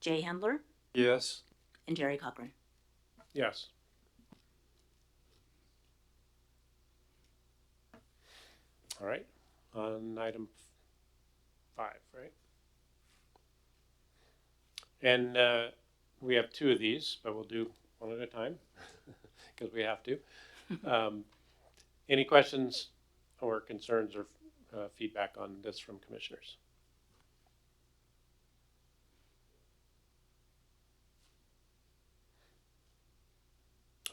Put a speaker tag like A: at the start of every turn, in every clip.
A: Jay Handler,
B: Yes.
A: and Jerry Cochran.
C: Yes. All right, on item five, right? And uh, we have two of these, but we'll do one at a time, because we have to. Um, Any questions or concerns or uh, feedback on this from commissioners?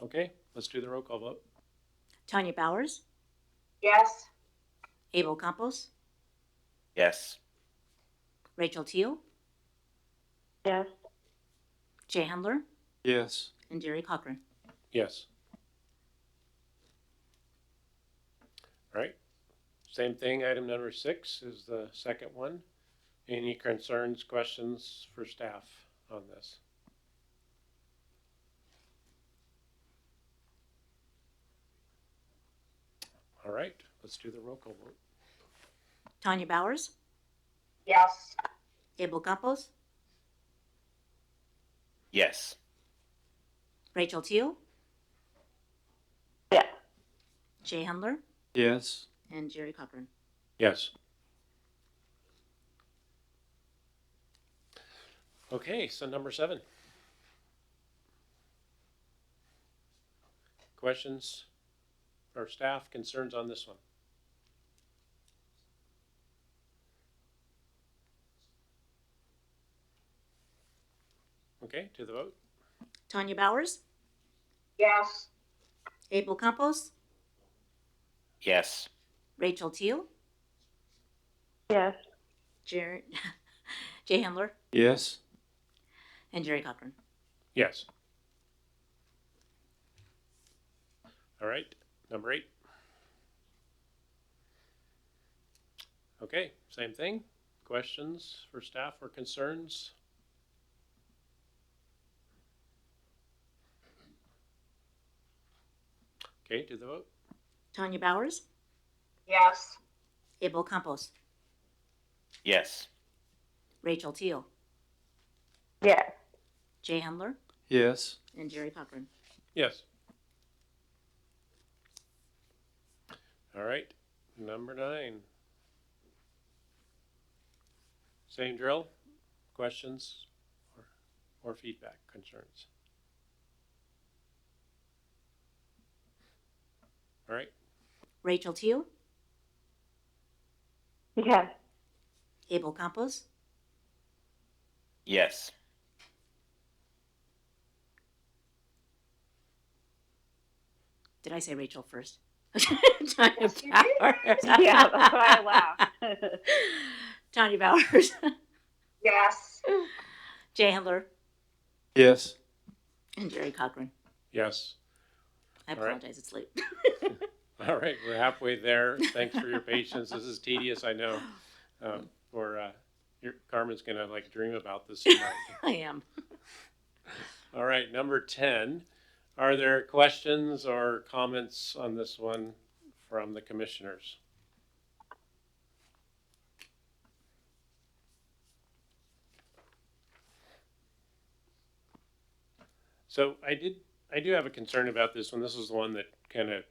C: Okay, let's do the roll call vote.
A: Tanya Bowers,
D: yes,
A: Abel Campos,
E: yes,
A: Rachel Teal,
D: yes,
A: Jay Handler,
B: Yes.
A: and Jerry Cochran.
C: Yes. All right. Same thing, item number six is the second one. Any concerns, questions for staff on this? All right, let's do the roll call vote.
A: Tanya Bowers,
D: yes,
A: Abel Campos,
E: yes,
A: Rachel Teal,
D: yes,
A: Jay Handler,
B: Yes.
A: and Jerry Cochran.
C: Yes. Okay, so number seven. Questions or staff concerns on this one? Okay, to the vote?
A: Tanya Bowers,
D: yes,
A: Abel Campos,
E: yes,
A: Rachel Teal,
D: yes,
A: Jer- Jay Handler,
B: Yes.
A: and Jerry Cochran.
C: Yes. All right, number eight. Okay, same thing. Questions for staff or concerns? Okay, to the vote.
A: Tanya Bowers,
D: yes,
A: Abel Campos,
E: yes,
A: Rachel Teal,
D: yes,
A: Jay Handler,
B: Yes.
A: and Jerry Cochran.
C: Yes. All right, number nine. Same drill, questions or, or feedback, concerns? All right,
A: Rachel Teal,
D: yes,
A: Abel Campos,
E: yes,
A: Did I say Rachel first?
D: Yes, you
A: Tanya
D: did.
A: Bowers.
D: yeah, that's why I laughed.
A: Tanya Bowers,
D: yes,
A: Jay Handler,
B: Yes.
A: and Jerry Cochran.
C: yes.
A: I
C: All right.
A: apologize, it's late.
C: All right, we're halfway there. Thanks for your patience. This is tedious, I know. Um, for, uh, your, Carmen's gonna like dream about this tonight.
A: I am.
C: All right, number ten. Are there questions or comments on this one from the commissioners? So I did, I do have a concern about this one. This is the one that kind of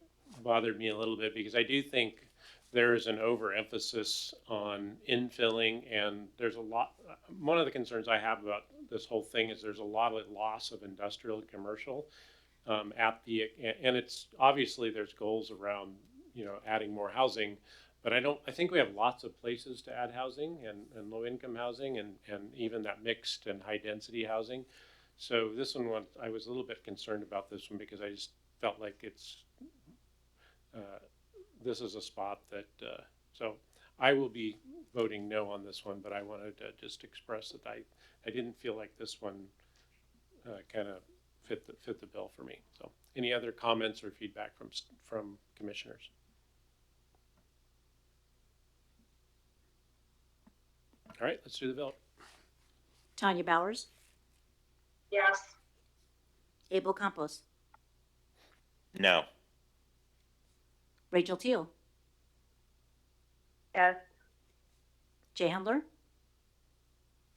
C: bothered me a little bit because I do think there is an overemphasis on infilling and there's a lot, one of the concerns I have about this whole thing is there's a lot of loss of industrial and commercial um, at the, and it's, obviously there's goals around, you know, adding more housing. But I don't, I think we have lots of places to add housing and, and low income housing and, and even that mixed and high density housing. So this one, was- I was a little bit concerned about this one because I just felt like it's, uh, this is a spot that, uh, so I will be voting no on this one, but I wanted to just express that I, I didn't feel like this one uh, kind of fit the, fit the bill for me. So any other comments or feedback from, s- from commissioners? All right, let's do the vote.
A: Tanya Bowers,
D: yes,
A: Abel Campos,
E: no,
A: Rachel Teal,
D: yes,
A: Jay Handler,